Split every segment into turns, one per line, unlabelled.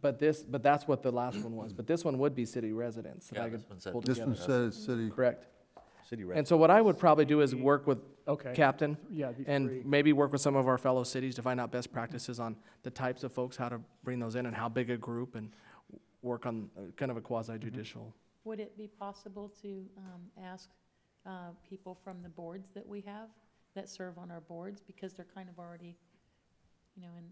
But this, but that's what the last one was, but this one would be city residents that
Yeah,
I could
this one said-
pull
This one
together.
says city,
Correct.
City
And so what I would probably do is work with
Okay.
Captain
Yeah, the three.
and maybe work with some of our fellow cities to find out best practices on the types of folks, how to bring those in and how big a group and work on uh, kind of a quasi judicial.
Would it be possible to um, ask uh, people from the boards that we have, that serve on our boards, because they're kind of already, you know, in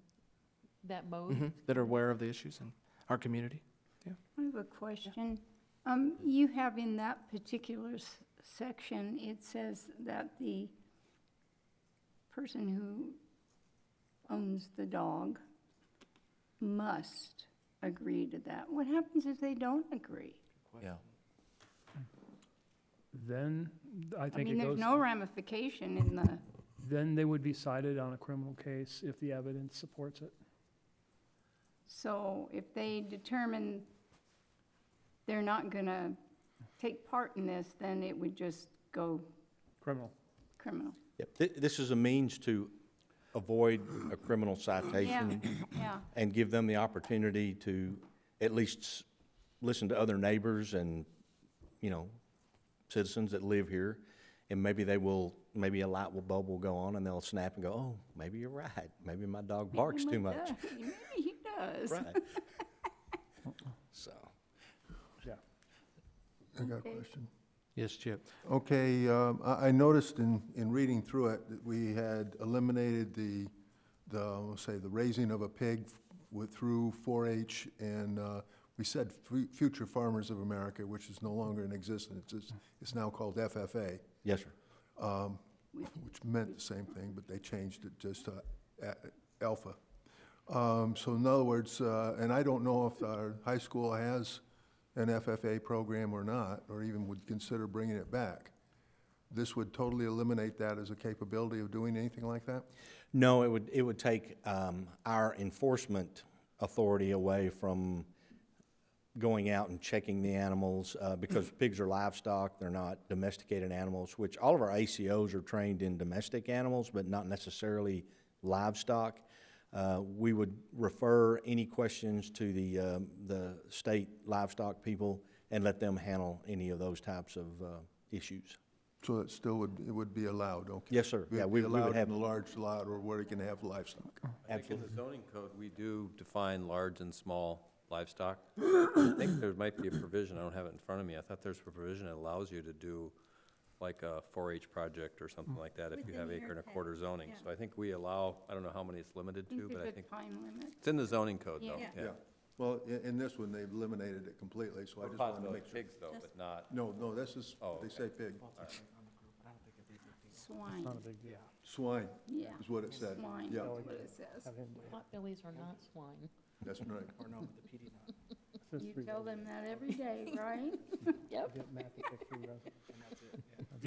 that
Mm-hmm.
mode?
mm-hmm, that are aware of the issues in our community.
I have a question. Um, you have in that particular s- section, it says that the person who owns the dog must agree to that. What happens if they don't agree?
Yeah,
Then I
I
think
mean,
it
there's
goes,
no ramification in the,
then they would be cited on a criminal case if the evidence supports it.
so if they determine they're not gonna take part in this, then it would just go
Criminal.
criminal.
Yep, thi- this is a means to avoid a criminal citation
Yeah,
and give them the opportunity to at least s- listen to other neighbors and, you know, citizens that live here. And maybe they will, maybe a light will bulb will go on and they'll snap and go, oh, maybe you're right. Maybe my dog barks too much.
Maybe he does.
Right. So,
I got a
Okay.
question.
Yes, Chip.
Okay, um, I, I noticed in, in reading through it, that we had eliminated the, the, let's say, the raising of a pig with, through 4-H, and, uh, we said fu- Future Farmers of America, which is no longer in existence, it's, it's now called FFA,
yes, sir.
which meant the same thing, but they changed it just to a- Alpha. Um, so in other words, uh, and I don't know if our high school has an FFA program or not, or even would consider bringing it back. This would totally eliminate that as a capability of doing anything like that?
No, it would, it would take um, our enforcement authority away from going out and checking the animals, uh, because pigs are livestock, they're not domesticated animals, which all of our ACOs are trained in domestic animals, but not necessarily livestock. Uh, We would refer any questions to the, um, the state livestock people and let them handle any of those types of uh, issues.
So it still would, it would be allowed, okay?
Yes, sir.
It would
Yeah,
be
we- we would
allowed
have-
in a large lot or where it can have livestock.
I think in the zoning code, we do define large and small livestock. I think there might be a provision, I don't have it in front of me, I thought there's a provision that allows you to do like a 4-H project or something like that if you have acre and a quarter zoning. So I think we allow, I don't know how many it's limited to,
There's
but
a
I
good
think,
time limit.
it's in the zoning code though,
Yeah.
yeah.
Well, in, in this one, they've eliminated it completely, so I just wanted to
Possibly
make sure.
pigs though, but not.
No, no, this is,
Oh,
they say pig,
Swine,
swine
yeah.
is what it said.
Swine,
Yeah,
that's what it says.
Potbellies are not swine.
that's right.
You tell them that every day, right?
Yep.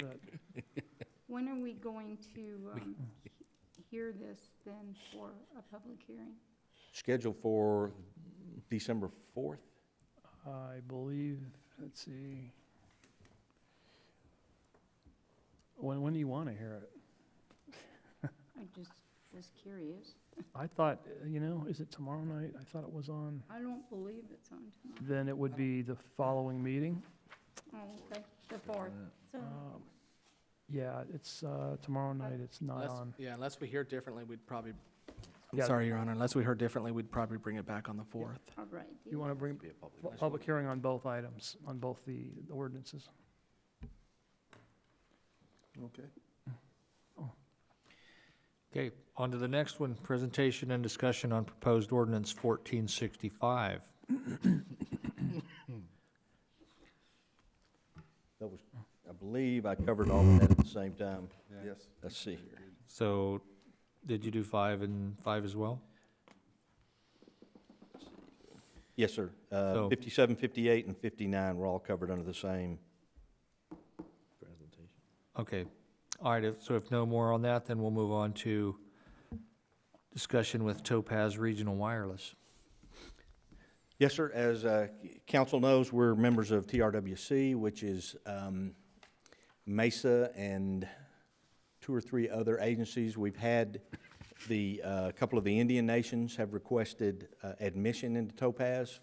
When are we going to um, he- hear this then for a public hearing?
Scheduled for December 4th?
I believe, let's see. When, when do you want to hear it?
I just was curious.
I thought, uh, you know, is it tomorrow night? I thought it was on.
I don't believe it's on tonight.
Then it would be the following meeting.
Oh, okay, the fourth.
Um, Yeah, it's, uh, tomorrow night. It's not on.
Yeah, unless we hear differently, we'd probably, I'm
Yeah.
sorry, Your Honor, unless we heard differently, we'd probably bring it back on the fourth.
All right.
You want to bring
be a public.
pu- public hearing on both items, on both the the ordinances?
Okay.
Okay, on to the next one, presentation and discussion on proposed ordinance fourteen sixty-five.
That was, I believe I covered all of that at the same time.
Yes.
Let's see here.
So, did you do five and five as well?
Yes, sir. Uh,
So-
57, 58, and 59 were all covered under the same.
Okay, all right, if- so if no more on that, then we'll move on to discussion with Topaz Regional Wireless.
Yes, sir. As uh, c- council knows, we're members of TRWC, which is um, Mesa and two or three other agencies. We've had The, uh, a couple of the Indian nations have requested uh, admission into Topaz